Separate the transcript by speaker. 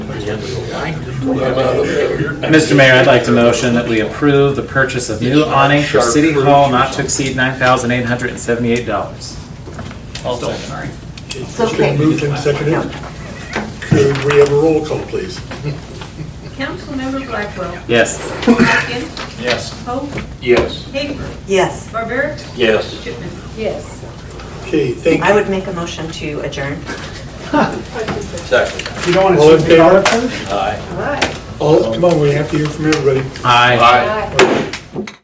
Speaker 1: Mr. Mayor, I'd like to motion that we approve the purchase of new awning for City Hall not to exceed nine thousand eight hundred and seventy-eight dollars.
Speaker 2: sorry.
Speaker 3: It's
Speaker 4: okay.
Speaker 3: been moved and seconded. Could we have a roll call, please?
Speaker 4: Councilmember Blackwell.
Speaker 1: Yes.
Speaker 4: Hopkins.
Speaker 2: Yes.
Speaker 4: Hope.
Speaker 2: Yes.
Speaker 4: Haver.
Speaker 5: Yes,
Speaker 4: Barbaric.
Speaker 2: Yes.
Speaker 4: Chipman.
Speaker 6: Yes.
Speaker 3: Okay, thank
Speaker 5: I
Speaker 3: you.
Speaker 5: would make a motion to adjourn.
Speaker 2: Second.
Speaker 7: You don't want
Speaker 3: All in
Speaker 7: to shoot the
Speaker 3: favor?
Speaker 7: article?
Speaker 2: Aye.
Speaker 6: All right.
Speaker 3: All, come on, we have to hear from everybody.
Speaker 1: Aye.
Speaker 6: All right.